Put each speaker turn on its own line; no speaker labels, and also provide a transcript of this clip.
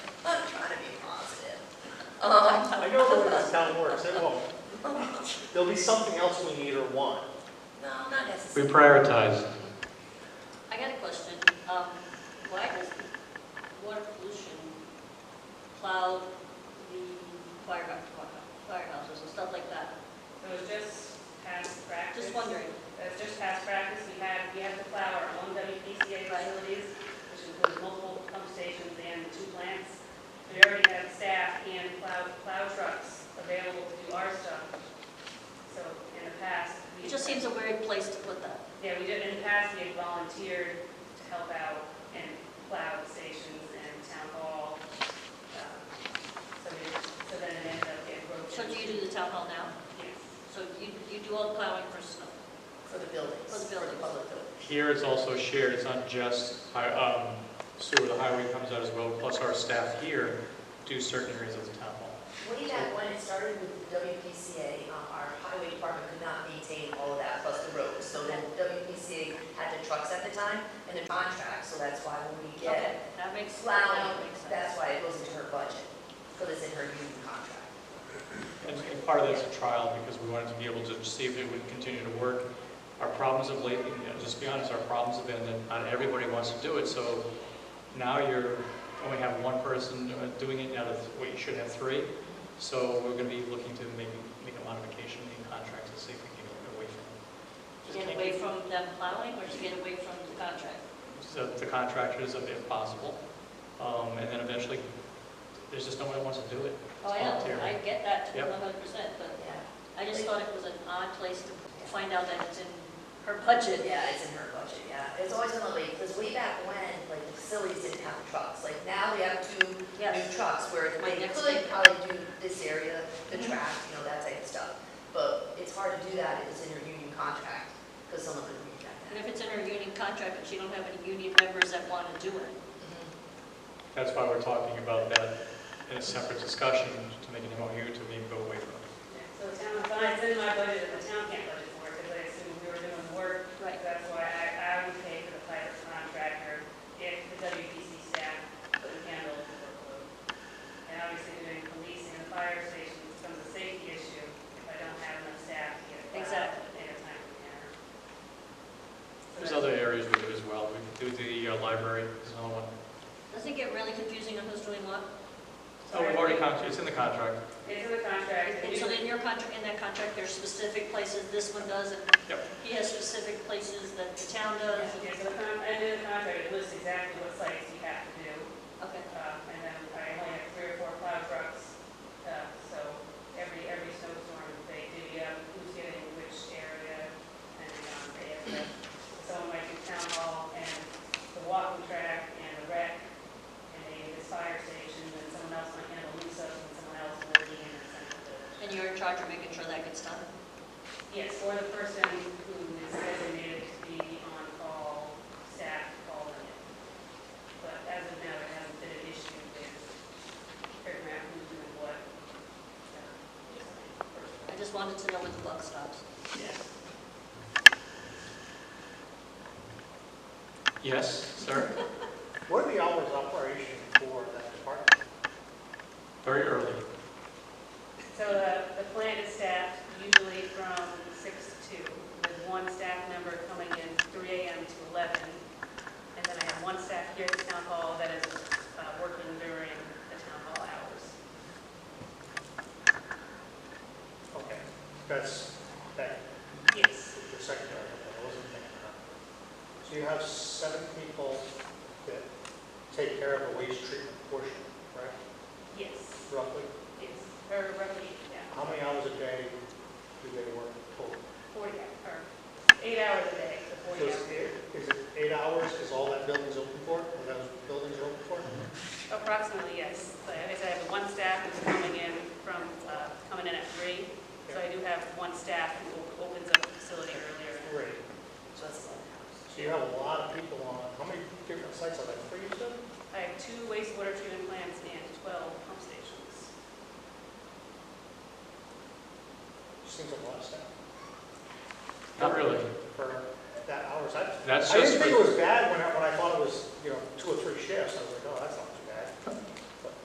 I know the way this town works, it won't. There'll be something else we need or want.
No, not
We
necessarily.
prioritize.
I got a question. Um, Why does water pollution cloud the fire firehouses and stuff like that?
It was just past practice.
Just wondering.
It was just past practice, we had, we have to plow our own WPCA facilities, which includes multiple pump stations and two plants. We already have staff and plow, plow trucks available to do our stuff. So in the past. we-
It just seems a weird place to put that.
Yeah, we did, in the past, we had volunteered to help out and plow the stations and town hall. um, So we, so then it ended up getting broken.
So do you do the town hall now?
Yes,
So you, you do all the plowing for snow?
For the buildings.
For the buildings.
public buildings.
Here it's also shared, it's not just hi- um, sewer, the highway comes out as well, plus our staff here do certain areas of the town hall.
Way back when it started with the WPCA, uh, our highway department could not maintain all of that plus the roads. So then WPCA had the trucks at the time and the contract, so that's why when we
Okay,
get
That makes,
plowing,
that makes sense.
that's why it goes into her budget, because it's in her union contract.
And and part of that's a trial because we wanted to be able to see if it would continue to work. Our problems of late, you know, just be honest, our problems have been that not everybody wants to do it, so now you're, only have one person uh, doing it out of, what, you should have three. So we're gonna be looking to maybe make a modification in contracts to see if we can get away from.
To
just
Get
can't
away from them plowing or to get away from the contract?
so the contractors if possible. Um, And then eventually, there's just nobody wants to do it.
Oh, I know,
volunteer.
I get that to
Yep.
one hundred percent, but
Yeah,
I just thought it was an odd place to find out that it's in her budget.
yeah, it's in her budget, yeah. It's always been like, because way back when, like, the facilities didn't have trucks. Like, now they have two
Yes.
new trucks where
My
they
next
could
thing.
probably do this area, the
Mhm.
track, you know, that type of stuff. But it's hard to do that if it's in your union contract, because someone could reject
And
that.
if it's in her union contract, but she don't have any union members that want to do it,
Mhm.
That's why we're talking about that in a separate discussion to make an MOU to maybe go away from it.
Yeah, so the town, but it's in my budget, and the town can't budget for it, because I assume we were doing work
right?
That's why I, I would pay for the private contractor if the WPC staff couldn't handle the workload. And obviously doing police and the fire stations becomes a safety issue if I don't have enough staff to get it. out
Exactly.
In a timely manner. So
There's
that's-
other areas we do as well. We do the uh, library, is another one.
Doesn't it get really confusing on who's doing what?
Oh, we've already, con- it's in the contract.
It's in the contract.
And so in your contract, in that contract, there's specific places this one does, and
Yep.
he has specific places that the town does. and-
Yeah, so the con, and in the contract, it lists exactly what sites you have to do.
Okay,
Uh, And then I only have three or four plow trucks, uh, so every, every snowstorm, they divvy up who's getting which area, and um, they have to, someone might do town hall and the walking track and the rec, and they do the fire station, and someone else might handle Lusos, and someone else will be in the central village.
and you're in charge of making sure that gets done?
Yes, or the person who is designated to be on call, staff calling it. But as of now, there hasn't been an issue with figuring out who's doing what.
I just wanted to know where the buck stops.
Yes, sir?
What are the hours of operation for that department?
Very early.
So the, the plant is staffed usually from six to two, with one staff member coming in three AM to eleven. And then I have one staff here at the town hall that is uh, working during the town hall hours.
Okay, that's, that,
Yes.
your secretary, I wasn't thinking about. it. So you have seven people that take care of the waste treatment portion, right,
Yes,
roughly?
yes, or roughly, yeah,
How many hours a day do they work total?
40, or eight hours a day, so
So
40
is
hours.
it- is it eight hours, is all that building's open for, or those buildings are open for?
Approximately, yes. So Like I said, I have one staff who's coming in from, uh, coming in at three. So I do have one staff who op- opens up the facility earlier.
Great.
So that's eleven hours.
So you have a lot of people on, how many different sites are there, three you said?
I have two wastewater treatment plants and 12 pump stations.
Seems like a lot of staff.
Not really.
For that hours, I,
That's
I didn't
just,
think it
for-
was bad when I, when I thought it was, you know, two or three shifts, I was like, oh, that's not